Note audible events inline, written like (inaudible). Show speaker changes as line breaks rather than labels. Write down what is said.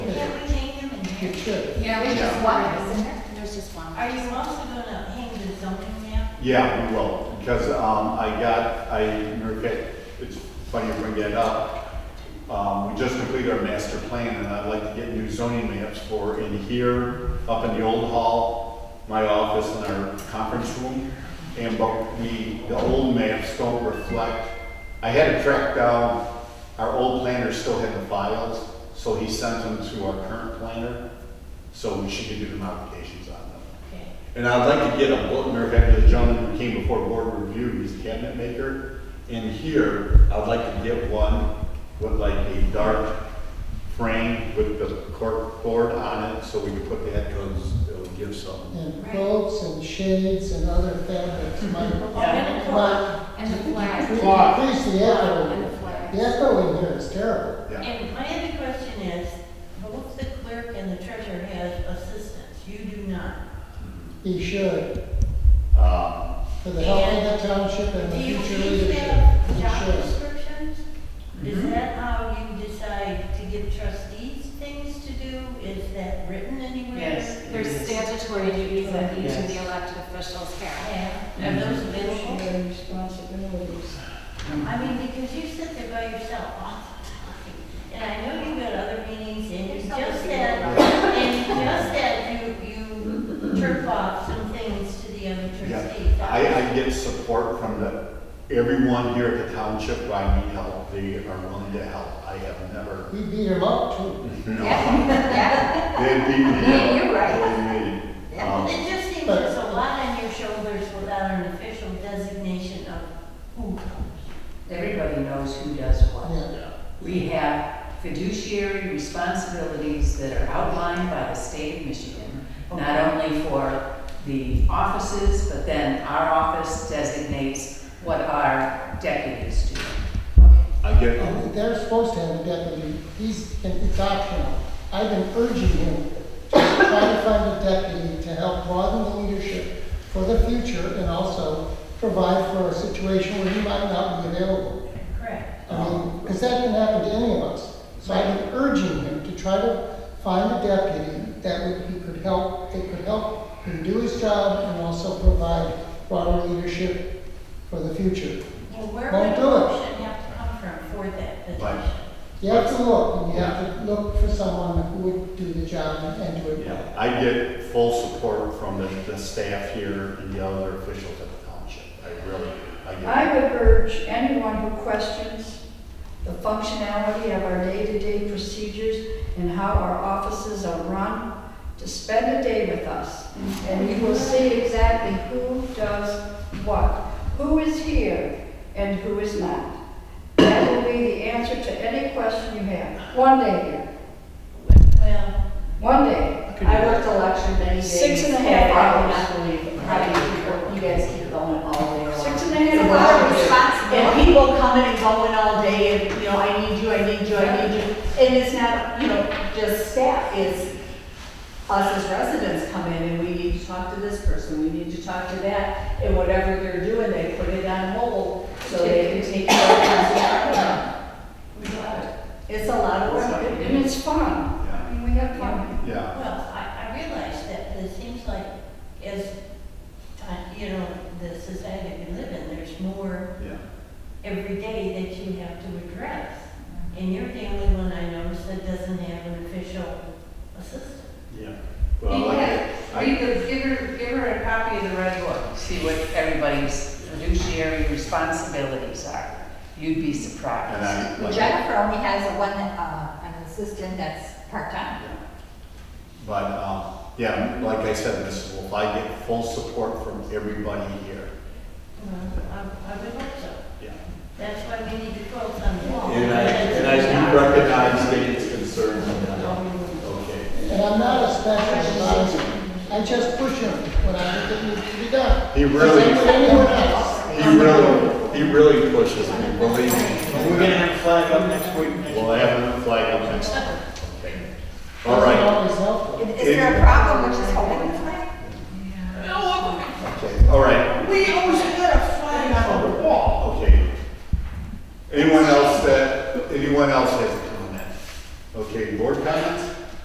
It should.
Yeah, we just
Yeah.
one, isn't there? There's just one.
Are you also gonna hang the zoning map?
Yeah, we will, because, um, I got, I, Mary Kay, it's funny you bring that up. Um, we just completed our master plan, and I'd like to get new zoning maps for in here, up in the old hall, my office and our conference room. And, but we, the old maps don't reflect, I had to track down, our old planner still had the files, so he sent them to our current planner, so she could do the modifications on them.
Okay.
And I'd like to get a bulletin, or have the gentleman who came before board review, he's a cabinet maker. In here, I'd like to get one with like a dark frame with the cork board on it, so we can put that, because it'll give some.
And quilts and shades and other fabrics might,
Yeah. (laughs)
might.
And the flag.
Clock.
Please, the
And the
echo,
flag.
the echo in here is terrible.
Yeah,
And my other question is, both the clerk and the treasurer have assistants, you do not.
He should,
um,
for the health of the
And
township and
Do
the
you
future
each
leadership.
have
He
job
should.
descriptions? Is that how you decide to give trustees things to do? Is that written anywhere?
Yes.
There's statutory duties that each of the elected officials have.
And are those available?
responsibilities.
I mean, because you sit there by yourself all the time, and I know you've got other meetings, and you just said, and you just said you, you turf off some things to the other trustees.
yeah. I, I get support from the, everyone here at the township, where I need help, they are willing to help. I have never,
We beat him up too.
(laughs)
no,
Yeah,
they beat me up.
Yeah, (laughs) you're right.
right.
Yeah,
Um,
It just seems there's a lot on your shoulders without an official designation of who comes.
Everybody knows who does what.
Yeah.
We have fiduciary responsibilities that are outlined by the state of Michigan, not only for the offices, but then our office designates what our deputies do.
I get,
And They're supposed to have a deputy, he's, and it's optional. I've been urging him to try to find a deputy to help broaden the leadership for the future and also provide for a situation where he might not be available.
Correct.
I mean, because that can happen to any of us. So I've been urging him to try to find a deputy that would, he could help, that could help him do his job and also provide broader leadership for the future.
Well, where
Well,
would
do it.
a motion have to come from for that
Right.
position?
You have to look, and you have to look for someone who would do the job and do it well.
Yeah, I get full support from the, the staff here and the other officials at the township. I really, I
I
get.
would urge anyone who questions the functionality of our day-to-day procedures and how our offices are run to spend a day with us. And you will see exactly who does what, who is here and who is not. That will be the answer to any question you have. One day here,
Well,
one day.
I worked election many days. Oh,
Six and a half hours.
I cannot believe, how do you, you guys keep going all day long?
Six and a
It's
half
lot of
hours.
responsibility. And people coming and going all day, and, you know, I need you, I need you, I need you. And it's not, you know, just staff, it's us as residents come in, and we need to talk to this person, we need to talk to that, and whatever they're doing, they put it on hold, so they can take care of it. It's a lot of- It's a lot of work.
And it's fun. I
Yeah,
mean, we have fun.
Yeah,
well, I, I realize that it seems like as, time- you know, the society we live in, there's more
yeah.
every day that you have to address. And you're the only one I notice that doesn't have an official assistant.
Yeah. Well, I get,
Read
I,
the, give her, give her a copy of the red book, see what everybody's fiduciary responsibilities are. You'd be
and
surprised.
I, like,
Jennifer only has a one, uh, an assistant that's part-time.
but, um, yeah, like I said, Mrs. Wolf, I get full support from everybody here.
Well, I, I would hope so.
Yeah.
That's why we need to focus on the law.
And I, and I do recognize Dave's concerns on that. Okay.
And I'm not a special advisor, I just push him when I think it needs to be done.
He really-
Just like with anyone else.
He really, he really pushes me, believe me.
We're gonna have a flag up next week.
We'll have a flag up next. Okay. All
Doesn't
right.
always help.
Is there a problem with just